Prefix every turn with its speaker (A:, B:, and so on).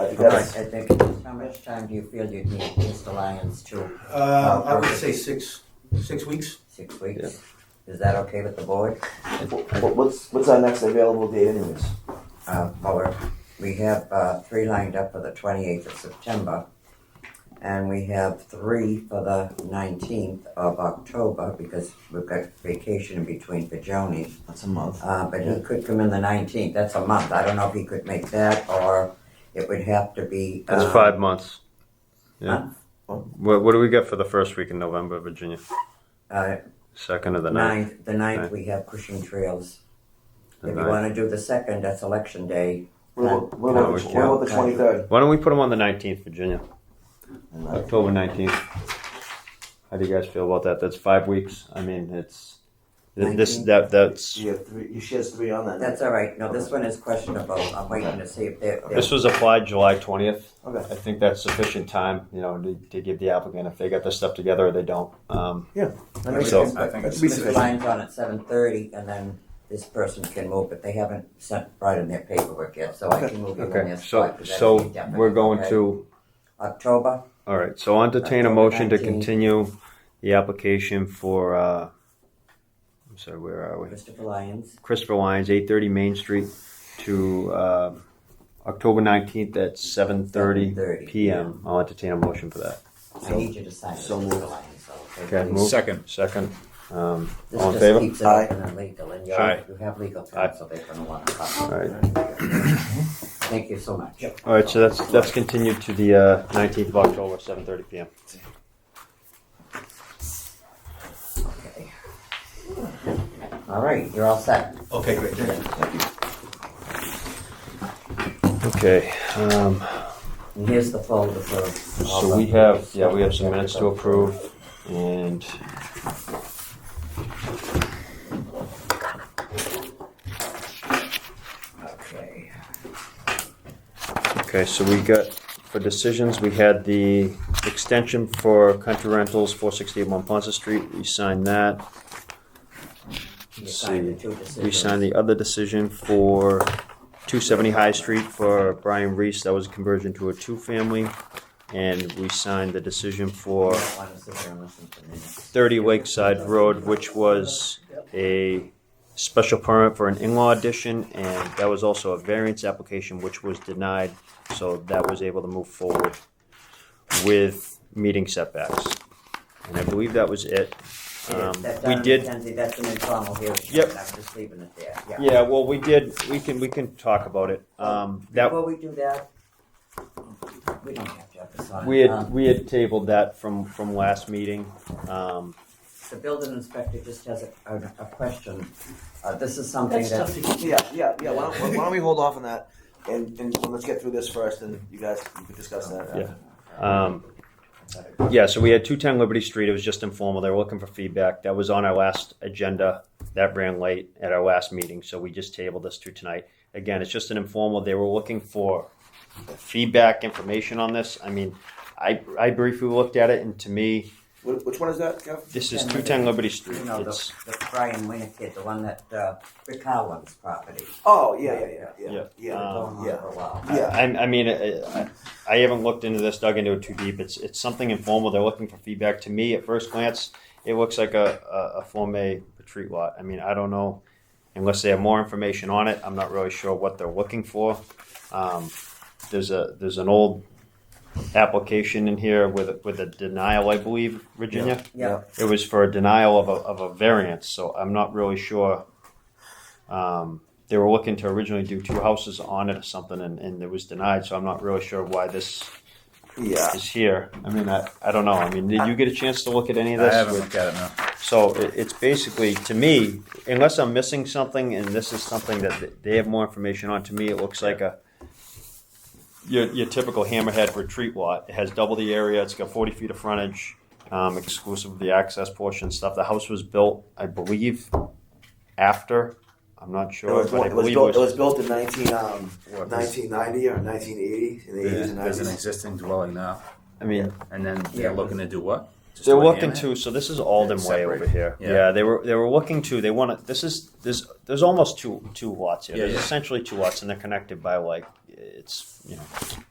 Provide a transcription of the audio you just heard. A: Uh,
B: Because
A: Okay.
B: I think, how much time do you feel you'd need Mr. Lyons to,
C: Uh, I would say six, six weeks.
B: six weeks? Is that okay with the board?
A: What- What's, what's our next available date anyways?
B: Uh, well, we're- we have, uh, three lined up for the twenty-eighth of September. And we have three for the nineteenth of October because we've got vacation in between for Joni.
A: That's a month.
B: Uh, but he could come in the nineteenth, that's a month. I don't know if he could make that or it would have to be.
D: That's
B: um,
D: five months. Yeah.
B: month,
D: What, what do we get for the first week in November, Virginia?
B: Uh,
D: Second or the ninth?
B: Ninth, the ninth,
D: Ninth.
B: we have Cushing Trails.
D: The
B: If you
D: ninth.
B: wanna do the second, that's election day.
A: What about, what about, the,
D: No,
A: tw- what about the
B: yeah.
A: 23rd?
D: Why don't we put them on the 19th, Virginia? October 19th. How do you guys feel about that? That's five weeks. I mean, it's th- this
B: 19th.
D: that that's
A: You have three, she has three on that night.
B: That's all right, no, this one is questionable, I'm waiting to see if they're, they're-
D: this was applied July 20th. I
A: Okay.
D: think that's sufficient time, you know, to, to give the applicant if they got their stuff together or they don't. Um,
A: That makes
D: So-
A: sense.
E: I think it's-
A: Be
B: Mr.
A: sufficient.
B: Lyons on at seven thirty, and then this person can move, but they haven't sent, brought in their paperwork yet, so I can move you in
D: okay,
B: their
D: so
B: spot. but that's
D: so
B: indefinite,
D: we're going
B: okay?
D: to
B: October,
D: All right, so I'll entertain a
B: October
D: motion to
B: 19th.
D: continue the application for, uh, I'm sorry, where are we?
B: Christopher Lyons,
D: Christopher Lyons, eight thirty Main Street to, uh, October nineteenth at seven thirty
B: 7:30.
D: PM. I'll entertain a motion for that.
B: I need you to sign this,
A: so
B: Mr.
A: moved.
B: Lyons, so.
D: Okay,
B: please.
D: move.
E: Second.
D: Second, um,
B: This
D: all in
B: just
D: favor?
B: keeps it open and legal, and you're,
D: Aye.
B: you have legal
D: Aye.
B: counsel, they're gonna want to copy.
D: All right,
B: Thank you so much.
D: all right, so that's, that's continued to the, uh, nineteenth of October, seven thirty PM.
B: Okay. All right, you're all set.
C: Okay, great. Thank you.
D: Okay, um,
B: And here's the folder for. all
D: so we
B: the-
D: have, yeah, we have some minutes to approve and
B: Okay.
D: Okay, so we got, for decisions, we had the extension for Country Rentals, four sixty-eight Monpont Street, we signed that.
B: You
D: Let's
B: signed the
D: see.
B: two
D: We
B: decisions.
D: signed the other decision for two seventy High Street for Brian Reese, that was a conversion to a two-family. And we signed the decision
B: You
D: for
B: don't wanna sit here and listen to minutes.
D: thirty Lakeside Road, which was a special permit for an in-law addition, and that was also a variance application, which was denied, so that was able to move forward with meeting setbacks. And I believe that was it. Um,
B: That's
D: we
B: done,
D: did,
B: Mackenzie, That's an informal hearing.
D: Yep.
B: I'm just leaving it there, yeah.
D: yeah, well, we did, we can, we can talk about it. Um, that,
B: Before we do that, we don't have to have this on.
D: we had,
B: Um,
D: we had tabled that from, from last meeting. Um,
B: The building inspector just has a, a a question. Uh, this is something
F: That's
B: that,
F: tough to
A: Yeah, yeah, yeah. Why don't, why don't we hold off on that? And, and let's get through this first, and you guys you can discuss that.
D: Yeah. um, Yeah, so we had 210 Liberty Street. It was just informal. They were looking for feedback. That was on our last agenda. That ran late at our last meeting, so we just tabled this to tonight. Again, it's just an informal. They were looking for feedback information on this. I mean, I, I briefly looked at it, and to me,
A: Wh- Which one is that, Kev?
D: this is 210 Liberty Street.
B: you know, the,
D: It's,
B: the Brian Winter kid, the one that, uh, Rick Howland's property.
A: Oh, yeah, yeah, yeah, yeah,
D: Yeah.
A: yeah.
D: Um,
B: Going on
A: yeah.
B: for a while.
D: I, I, I mean, I, I- I haven't looked into this, dug into it too deep. It's, it's something informal. They're looking for feedback. To me, at first glance, it looks like a, a, a Form A retreat lot. I mean, I don't know, unless they have more information on it. I'm not really sure what they're looking for. Um, there's a there's an old application in here with a, with a denial, I believe, Virginia.
B: Yeah,
D: It was for a denial of a, of a variance, so I'm not really sure. Um, they were looking to originally do two houses on it or something, and, and it was denied, so I'm not really sure why this
A: Yeah.
D: is here. I mean, I, I don't know. I mean, did you get a chance to look at any of
E: I
D: this?
E: haven't looked at it now.
D: So it, it's basically, to me, unless I'm missing something, and this is something that th- they have more information on, to me, it looks like a your, your typical hammerhead retreat lot. It has double the area. It's got 40 feet of frontage, um, exclusive of the access portion and stuff. The house was built, I believe, after. I'm not
A: It
D: sure,
A: was,
D: but I
A: it was
D: believe
A: built. It
D: it was.
A: was built in 19, um,
E: What, there's-
A: 1990 or 1980 in the 80s and
E: There's
A: 90s.
E: an existing dwelling now,
D: I mean,
E: and then they're
B: Yeah.
E: looking to do what? Just
D: They're
E: do a
D: looking
E: hammerhead?
D: to. So this is Alden Way
E: Separate.
D: over here. Yeah.
E: Yeah.
D: they were they were looking to. They want to. This is there's there's almost two two lots here.
E: Yeah,
D: there's
E: yeah.
D: essentially two lots, and they're connected by like it's you know